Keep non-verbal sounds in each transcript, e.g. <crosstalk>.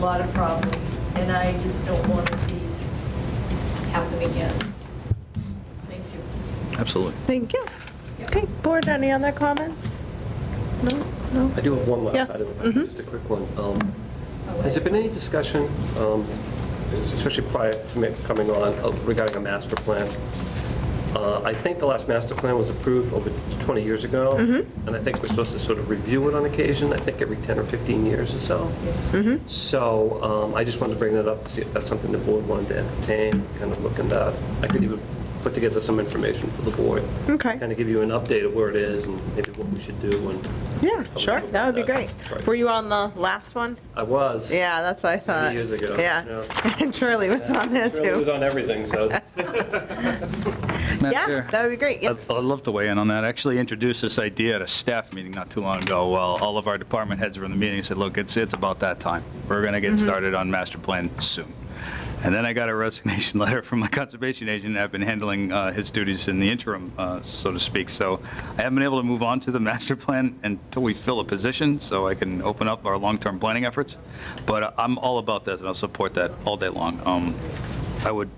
lot of problems, and I just don't want to see happen again. Thank you. Absolutely. Thank you. Okay, board, any other comments? No, no? I do have one Yeah. last item, if I could, just a quick one. Um, Has there been any discussion, um, especially prior to me coming on, of- regarding a master plan? Uh, I think the last master plan was approved over 20 years ago, Mm-hmm. and I think we're supposed to sort of review it on occasion, I think every 10 or 15 years or so. Mm-hmm. So um, I just wanted to bring that up, to see if that's something the board wanted to entertain, kind of looking at. I could even put together some information for the board. Okay. Kind of give you an update of where it is and maybe what we should do and Yeah, sure, that would be great. Right. Were you on the last one? I was. Yeah, that's what I thought. years ago, Yeah, yeah. <laughs> and Shirley was on there It was too. on everything, so. <laughs> Madam Yeah, Chair, that would be great, yes. I'd I'd love to weigh in on that. I actually introduced this idea at a staff meeting not too long ago, while all of our department heads were in the meeting, and said, look, it's, it's about that time. We're going to get Mm-hmm. started on master plan soon. And then I got a resignation <laughs> letter from my conservation agent, and I've been handling uh, his duties in the interim, uh, so to speak. So I haven't been able to move on to the master plan until we fill a position, so I can open up our long-term planning efforts. But uh, I'm all about that, and I'll support that all day long. Um, I would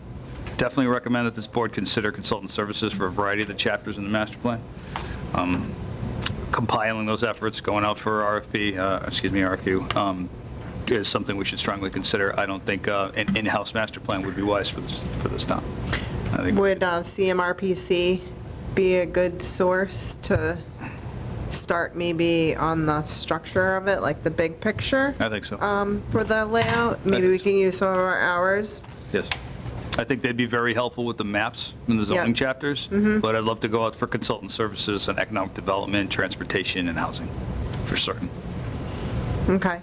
definitely recommend that this board consider consultant services for a variety of the chapters in the master plan. Um, Compiling those efforts, going out for RFP, uh, excuse me, RFQ, um, is something we should strongly consider. I don't think uh, an in-house master plan would be wise for this, for this town. I think- Would uh, CMRPC be a good source to start maybe on the structure of it, like the big picture? I think so. um, For the layout? Maybe we can use some of our hours. Yes. I think they'd be very helpful with the maps in the Yeah. Mm-hmm. zoning chapters, but I'd love to go out for consultant services on economic development, transportation, and housing, for certain. Okay.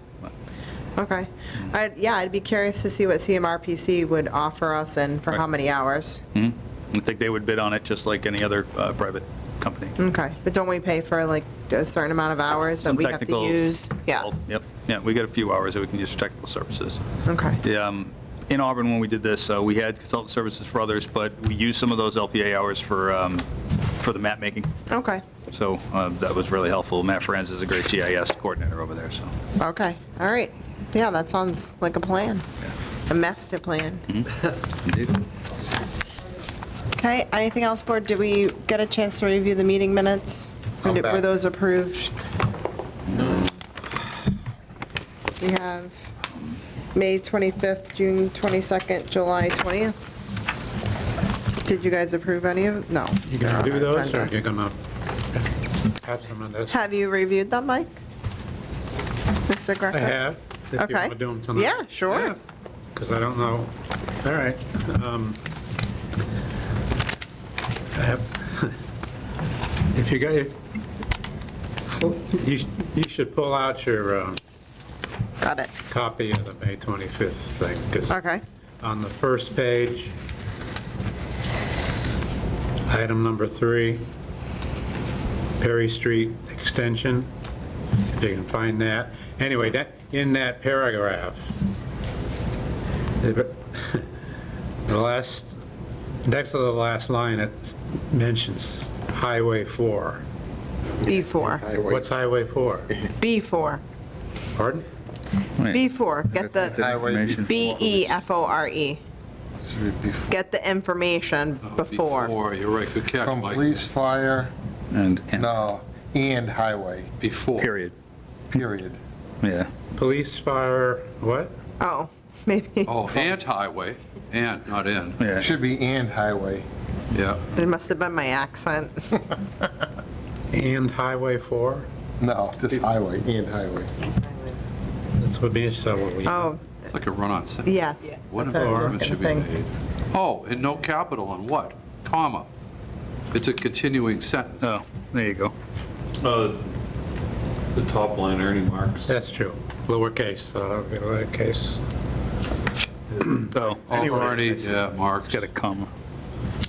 Okay. Mm. I'd- Yeah, I'd be curious to see what CMRPC would offer us and for how Right. many hours. Hmm? I think they would bid on it just like any other uh, private company. Okay, but don't we pay for like a certain amount of Mm, hours that Some we have to technical- use? Yeah, Yep, yeah, we got a few hours that we can use for technical services. okay. Yeah, um, In Auburn, when we did this, uh, we had consultant services for others, but we used some of those LPA hours for, um, for the map making. Okay, So uh, that was really helpful. Matt Franz is a great GIS coordinator over there, so. okay, all right. Yeah, that sounds like a plan, a master plan. Okay, anything else, board? Did we get a chance to review the meeting minutes? Or I'm did- Were back. those approved? We have May 25th, June 22nd, July 20th. Did you guys approve any of, no. You they're gonna on do our those, or agenda. you're gonna pass them on this? Have you reviewed them, Mike? Mr. Greco? I have, if you Okay. want to do them tonight. Yeah, sure. Because I don't know, all right. um, I have- <laughs> If you got, your- you sh- you should pull out your um, Got it. copy of the May 25th thing, 'cause Okay. on the first page, item number three, Perry Street Extension, if you can find that. Anyway, that, in that paragraph, <laughs> the the last, next to the last line, it mentions Highway 4. B4. What's Highway 4? B4. Pardon? B4. Get the, E Highway. B-E-F-O-R-E. Get the information before. Before, you're right, good catch, From Mike. police, fire, And, no, and highway, Before. period, period. yeah. Police, fire, what? Oh, <laughs> maybe, Oh, and highway, and, not in, It should be and highway. yeah. it must have been my accent. And Highway 4? No, just highway, and highway. This would be, so what we... Oh, It's like a run-on sentence. yes. What That's what I was improvement should be gonna think. made? Oh, and no capital on what? Comma. It's a continuing sentence. Oh, there you go. Uh, The top line, Ernie Marks. That's true. Lowercase, uh, lowercase. Oh, Oh, Anyway. Ernie, yeah, Mark. got a comma.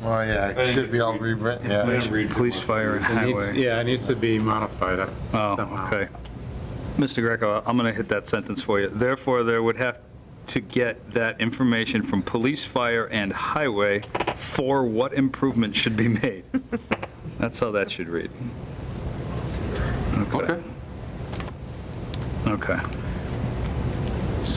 Oh, yeah, it should be all rewritten, I yeah. didn't read too Police, much. fire, and highway. Yeah, it needs to be modified uh, Oh, somehow. okay. Mr. Greco, I'm going to hit that sentence for you. Therefore, there would have to get that information from police, fire, and highway for what improvement should be made. <laughs> That's how that should read. Okay. Okay.